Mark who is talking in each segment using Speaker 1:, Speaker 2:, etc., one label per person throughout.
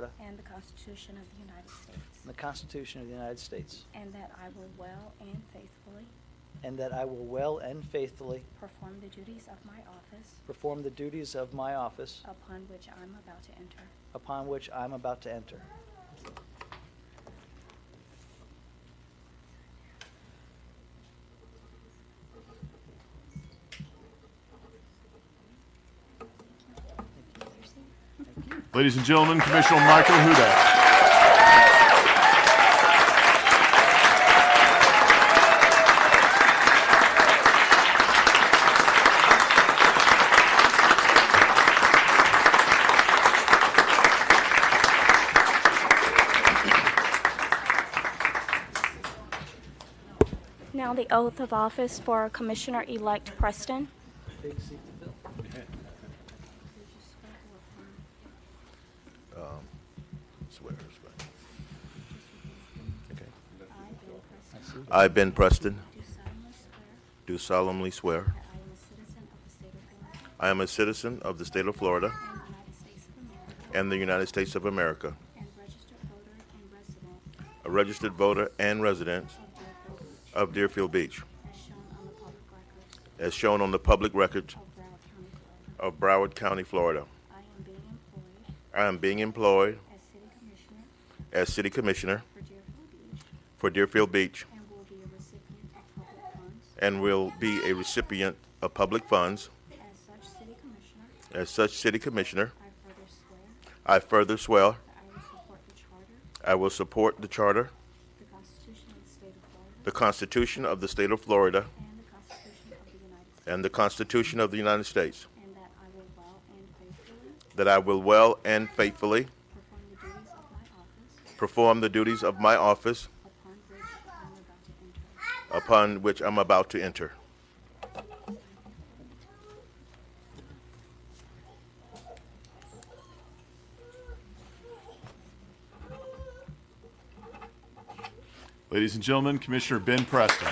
Speaker 1: Florida
Speaker 2: and the Constitution of the United States.
Speaker 1: and the Constitution of the United States,
Speaker 2: And that I will well and faithfully
Speaker 1: and that I will well and faithfully
Speaker 2: perform the duties of my office
Speaker 1: perform the duties of my office
Speaker 2: upon which I'm about to enter.
Speaker 1: upon which I am about to enter.
Speaker 3: Ladies and gentlemen, Commissioner Michael Hudak.
Speaker 2: Now the oath of office for Commissioner-elect Preston.
Speaker 4: Swear, swear. I, Ben Preston,
Speaker 2: Do solemnly swear
Speaker 4: do solemnly swear
Speaker 2: that I am a citizen of the state of Florida
Speaker 4: I am a citizen of the state of Florida
Speaker 2: and the United States of America,
Speaker 4: and the United States of America,
Speaker 2: and registered voter and resident
Speaker 4: a registered voter and resident
Speaker 2: of Deerfield Beach,
Speaker 4: of Deerfield Beach,
Speaker 2: as shown on the public records
Speaker 4: as shown on the public record
Speaker 2: of Broward County, Florida.
Speaker 4: of Broward County, Florida.
Speaker 2: I am being employed
Speaker 4: I am being employed
Speaker 2: as city commissioner
Speaker 4: as city commissioner
Speaker 2: for Deerfield Beach
Speaker 4: for Deerfield Beach
Speaker 2: and will be a recipient of public funds.
Speaker 4: and will be a recipient
Speaker 2: As
Speaker 4: of public funds.
Speaker 2: such city commissioner,
Speaker 4: As such city commissioner,
Speaker 2: I further swear
Speaker 4: I further swear
Speaker 2: that I will support the charter,
Speaker 4: I will support the charter,
Speaker 2: the Constitution of the state of Florida,
Speaker 4: the Constitution of the state of Florida,
Speaker 2: and the Constitution of the United States,
Speaker 4: and the Constitution of the United States.
Speaker 2: and that I will well and faithfully
Speaker 4: That I will well and faithfully
Speaker 2: perform the duties of my office
Speaker 4: perform the duties of my office
Speaker 2: upon which I am about to enter.
Speaker 4: upon which I'm about to enter.
Speaker 3: Ladies and gentlemen, Commissioner Ben Preston.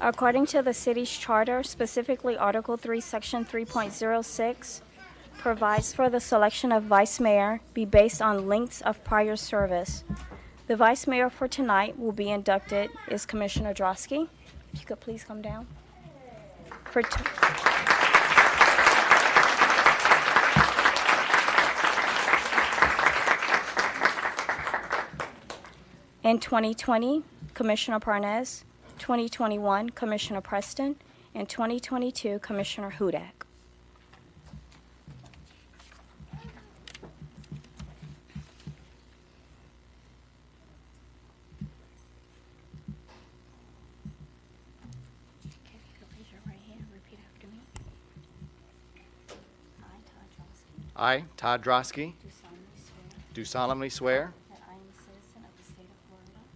Speaker 2: According to the city's charter, specifically Article 3, Section 3.06, provides for the selection of vice mayor be based on lengths of prior service. The vice mayor for tonight will be inducted is Commissioner Drosky. If you could please come down. For t- In 2020, Commissioner Parnes, 2021, Commissioner Preston, and 2022, Commissioner Hudak. Okay, if you could raise your right hand and repeat after me. I, Todd Johnson,
Speaker 5: I, Todd Drosky,
Speaker 2: do solemnly swear
Speaker 5: do solemnly swear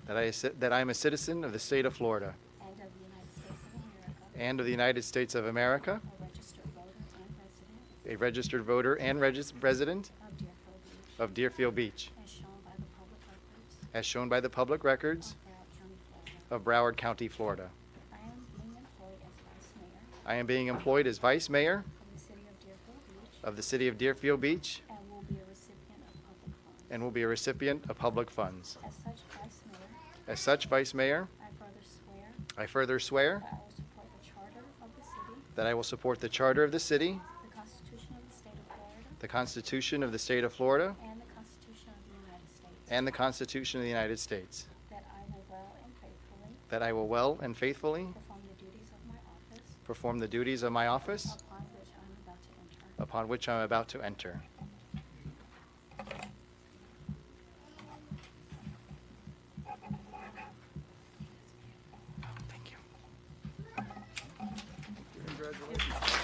Speaker 2: that I am a citizen of the state of Florida
Speaker 5: that I, is- that I am a citizen of the state of Florida
Speaker 2: and of the United States of America,
Speaker 5: and of the United States of America,
Speaker 2: a registered voter and resident
Speaker 5: a registered voter and regis- resident
Speaker 2: of Deerfield Beach,
Speaker 5: of Deerfield Beach,
Speaker 2: as shown by the public records
Speaker 5: as shown by the public records
Speaker 2: of Broward County, Florida.
Speaker 5: of Broward County, Florida.
Speaker 2: I am being employed as vice mayor
Speaker 5: I am being employed as vice mayor
Speaker 2: of the city of Deerfield Beach
Speaker 5: of the city of Deerfield Beach
Speaker 2: and will be a recipient of public funds.
Speaker 5: and will be a recipient of public funds.
Speaker 2: As such vice mayor,
Speaker 5: As such, vice mayor,
Speaker 2: I further swear
Speaker 5: I further swear
Speaker 2: that I will support the charter of the city,
Speaker 5: that I will support the charter of the city,
Speaker 2: the Constitution of the state of Florida,
Speaker 5: the Constitution of the state of Florida,
Speaker 2: and the Constitution of the United States,
Speaker 5: and the Constitution of the United States.
Speaker 2: that I will well and faithfully
Speaker 5: That I will well and faithfully
Speaker 2: perform the duties of my office
Speaker 5: perform the duties of my office
Speaker 2: upon which I am about to enter.
Speaker 5: upon which I am about to enter.